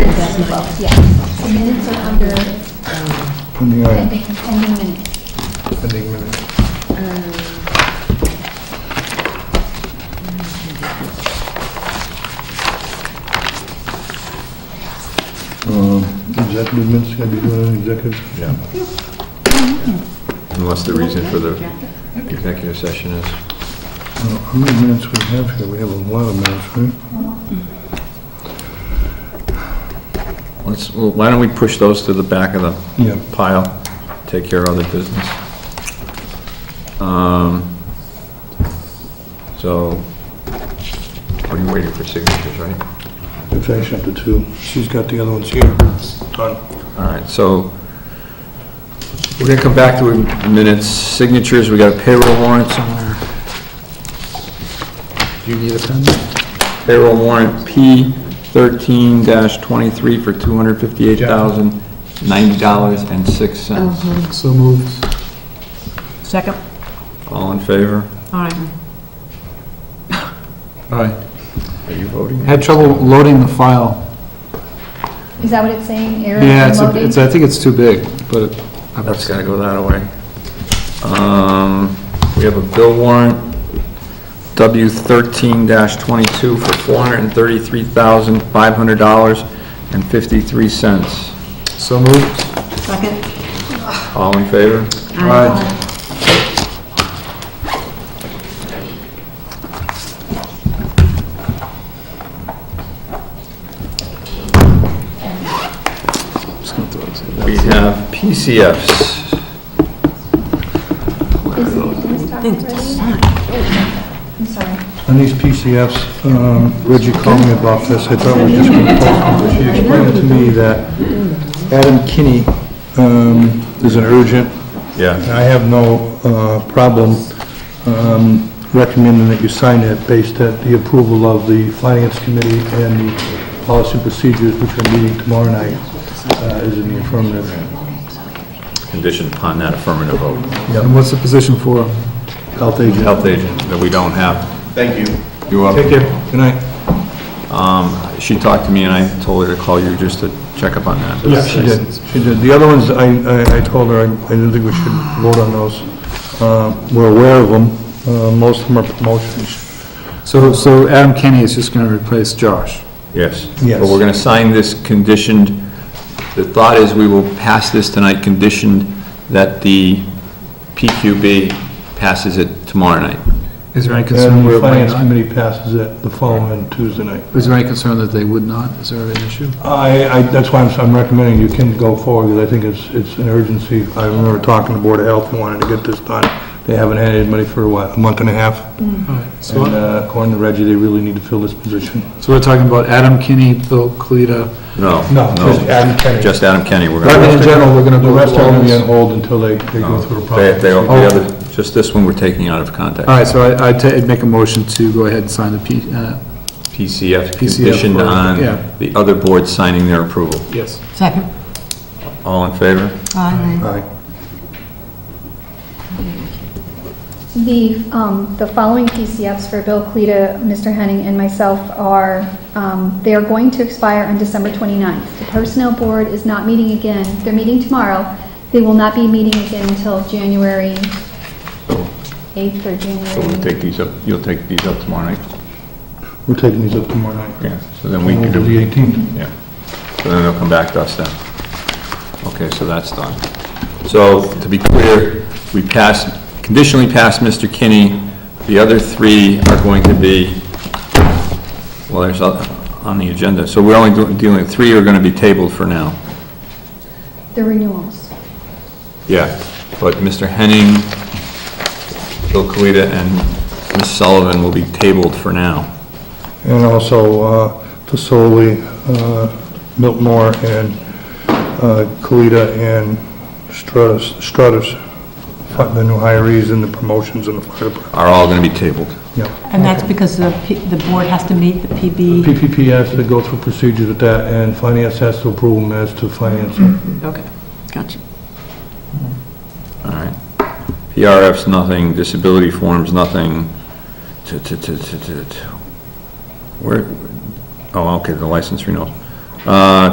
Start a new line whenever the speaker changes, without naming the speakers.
September 12th, yeah. So minutes are under
Pending item,
pending pending minutes.
pending minutes. Um, Executive minutes, can I be doing an executive?
Yeah. Unless the reason for the executive session is,
Uh, How many minutes we have here? We have a lot of minutes, right?
let's, well, why don't we push those to the back of the
Yeah.
pile, take care of other business? Um, So, are you waiting for signatures, right?
It's actually up to two. She's got the other ones here. Done.
All right, so we're gonna come back to minutes, signatures, we got a payroll warrant somewhere. Do you need a pen? Payroll warrant P thirteen twenty-three for two hundred fifty-eight thousand, ninety dollars and six cents.
So moved.
Second?
All in favor?
All right.
Aye.
Are you voting?
Had trouble loading the file.
Is that what it's saying, error
Yeah,
in
it's, a-
loading?
it's, I think it's too big, but I
That's gotta go that way. Um, we have a bill warrant, W thirteen twenty-two for four hundred and thirty-three thousand, five hundred dollars and fifty-three cents.
So moved.
Second?
All in favor?
Aye. Just gonna throw this in.
We have PCFs.
Is it- is it
think it's
already? I'm sorry.
On these PCFs, um, Reggie called me about this, I thought we were just going to postpone it. She explained to me that Adam Kinney um, is an urgent, and
Yeah.
I have no uh, problem um, recommending that you sign it based at the approval of the Finance Committee and the Policy Procedures, which are meeting tomorrow night, uh, is in the affirmative.
Conditioned upon that affirmative vote.
And what's the position for?
Health agent.
Health agent that we don't have.
Thank you.
You up?
Take care. Good night.
She talked to me and I told her to call you just to check up on that.
Yeah, she did, she did. The other ones, I, I- I told her, I I didn't think we should vote on those. Uh, We're aware of them, Uh, most of them are promotions.
So, so Adam Kenny is just gonna replace Josh.
Yes.
Yes.
But we're going to sign this conditioned, the thought is we will pass this tonight conditioned that the PQB passes it tomorrow night.
Is there any concern
And
where
the
it might
finance
not?
committee passes it the following Tuesday night.
Is there any concern that they would not? Is there an issue?
I, I, that's why I'm, I'm recommending you can go forward, because I think it's, it's an urgency. I remember talking to Board of Health and wanted to get this done. They haven't had anybody for, what, a month and a half? And
So
uh, according to Reggie, they really need to fill this position.
so we're talking about Adam Kenny, Bill Colita.
No.
No, just Adam Kennedy.
Just Adam Kenny. We're
But I mean,
going
in
to.
general, we're gonna, the rest are gonna be on hold until they, they go through the process.
Just this one we're taking out of context.
All right, so I, I'd ta- I'd make a motion to go ahead and sign the P, uh,
PCF
PCF
conditioned
for-
on
yeah.
the other boards signing their approval.
yes.
Second?
All in favor?
Aye.
Aye.
The, um, the following PCFs for Bill Cleta, Mr. Henning, and myself are, um, they are going to expire on December 29th. The Personnel Board is not meeting again, they're meeting tomorrow. They will not be meeting again until January 8th or January.
take these up, you'll take these up tomorrow night?
We're taking these up tomorrow night.
Yeah, so then we
Over
can do.
the 18th.
Yeah, so then they'll come back to us then. Okay, so that's done. So, to be clear, we passed, conditionally passed Mr. Kinney, the other three are going to be, well, there's, oth- on the agenda, so we're only do- dealing, three are gonna be tabled for now.
The renewals.
Yeah. But Mr. Henning, Bill Colita, and Ms. Sullivan will be tabled for now.
And also, uh, Fasoli, uh, Miltmore, and uh, Kalita, and Strutters, Strutters, the new hirees and the promotions in the fire department.
Are all gonna be tabled.
Yeah.
And that's because the, P- the board has to meet the PB.
PPP has to go through procedures with that, and finance has to approve them as to finance.
Okay, gotcha.
All right. PRF's nothing, disability forms, nothing. T- t- t- t- t- t- Where, oh, okay, the license renewal. Uh,